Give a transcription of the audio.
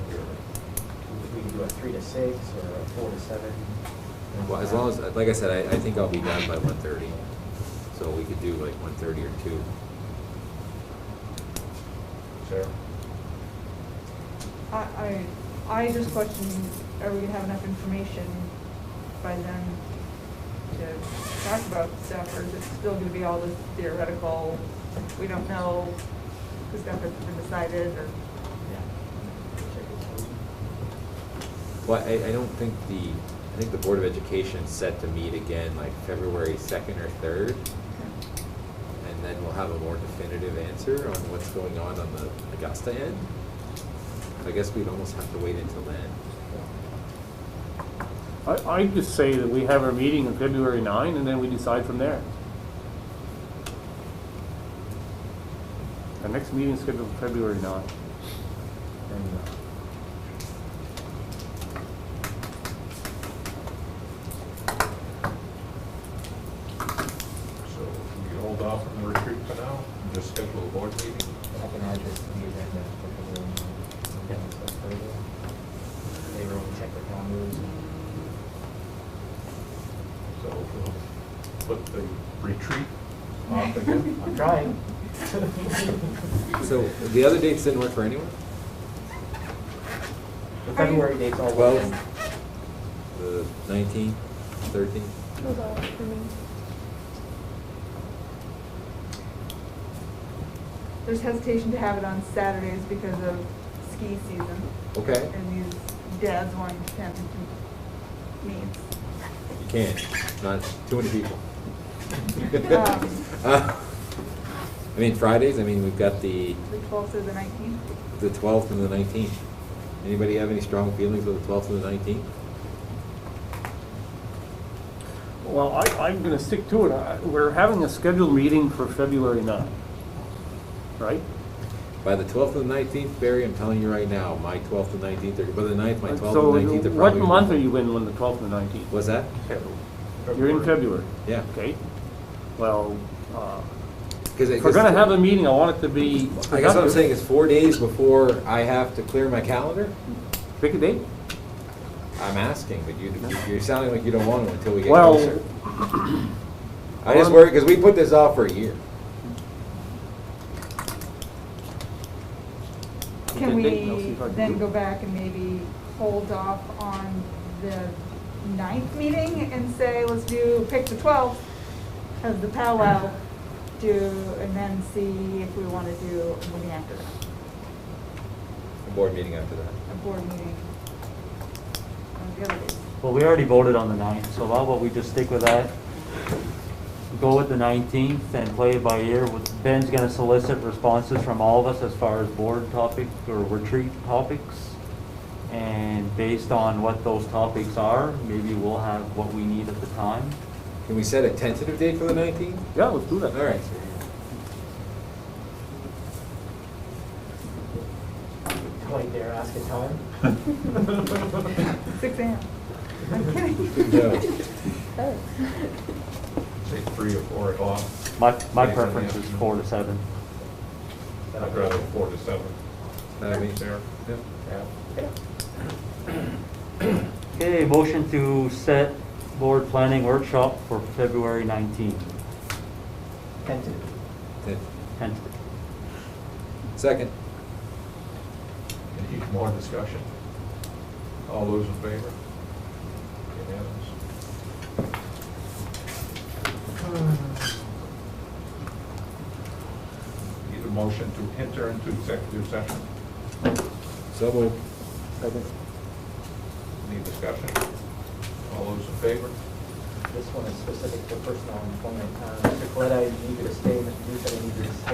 three to six or a four to seven? Well, as long as, like I said, I, I think I'll be done by one thirty, so we could do like one thirty or two. Sure. I, I, I just question, are we gonna have enough information by then to talk about stuff, or is it still gonna be all this theoretical, we don't know, the stuff that's been decided, or? Well, I, I don't think the, I think the Board of Education's set to meet again like February second or third, and then we'll have a more definitive answer on what's going on on the Augusta end. So I guess we'd almost have to wait until then. I, I just say that we have our meeting on February nine, and then we decide from there. Our next meeting is scheduled for February nine. And, uh, So we hold off on the retreat for now, and just schedule a board meeting. I can add this to the agenda for the room. That's further. They will check the calendars. So we'll put the retreat off again. I'm trying. So the other dates didn't work for anyone? The February dates all Well- work. The nineteenth, thirteenth? Those all work for me. There's hesitation to have it on Saturdays because of ski season, Okay, and these dads wanting to attend meets. you can't, not too many people. Um, Uh, I mean, Fridays, I mean, we've got the, The twelfth or the nineteenth? the twelfth and the nineteenth. Anybody have any strong feelings about the twelfth and the nineteenth? Well, I, I'm gonna stick to it. I- We're having a scheduled meeting for February nine. Right? By the twelfth and the nineteenth, Barry, I'm telling you right now, my twelfth and nineteenth, are by the ninth, my twelfth and nineteenth are So what probably. month are you in when the twelfth and nineteenth? What's that? You're in February, Yeah. okay? Well, uh, Cause I if we're guess- gonna have a meeting, I want it to I be guess what I'm productive. saying is four days before I have to clear my calendar, Pick a date. I'm asking, but you, you're sounding like you don't want to until we get Well- closer. I just worry, cause we put this off for a year. Can Okay, Dayton, I'll see we if I can do then it. go back and maybe hold off on the ninth meeting and say, let's do, pick the twelfth as the powwow, do, and then see if we want to do a meeting after that, A board meeting after that. a board meeting. on the other days. Well, we already voted on the ninth, so how about we just stick with that? Go with the nineteenth and play it by ear. With- Ben's gonna solicit responses from all of us as far as board topic or retreat topics. And based on what those topics are, maybe we'll have what we need at the time. Can we set a tentative date for the nineteenth? Yeah, let's do All that. right. Point there, ask a time. Six AM. I'm No. kidding. Oh. Say three or four o'clock. My, my Yeah, preference is yeah. four to seven. I'd rather four to seven. That means- There. yeah. Yeah. Okay, motion to set board planning workshop for February nineteenth, Tentative. Ten- tentative. Second. Any more discussion? All those in favor? Unanimous? Need a motion to enter into executive session? So moved. Any discussion? All those in favor? This one is specific to personal employment. Uh, Mr. Coletta, I need you to stay, Mr. Duke, I need you to stay.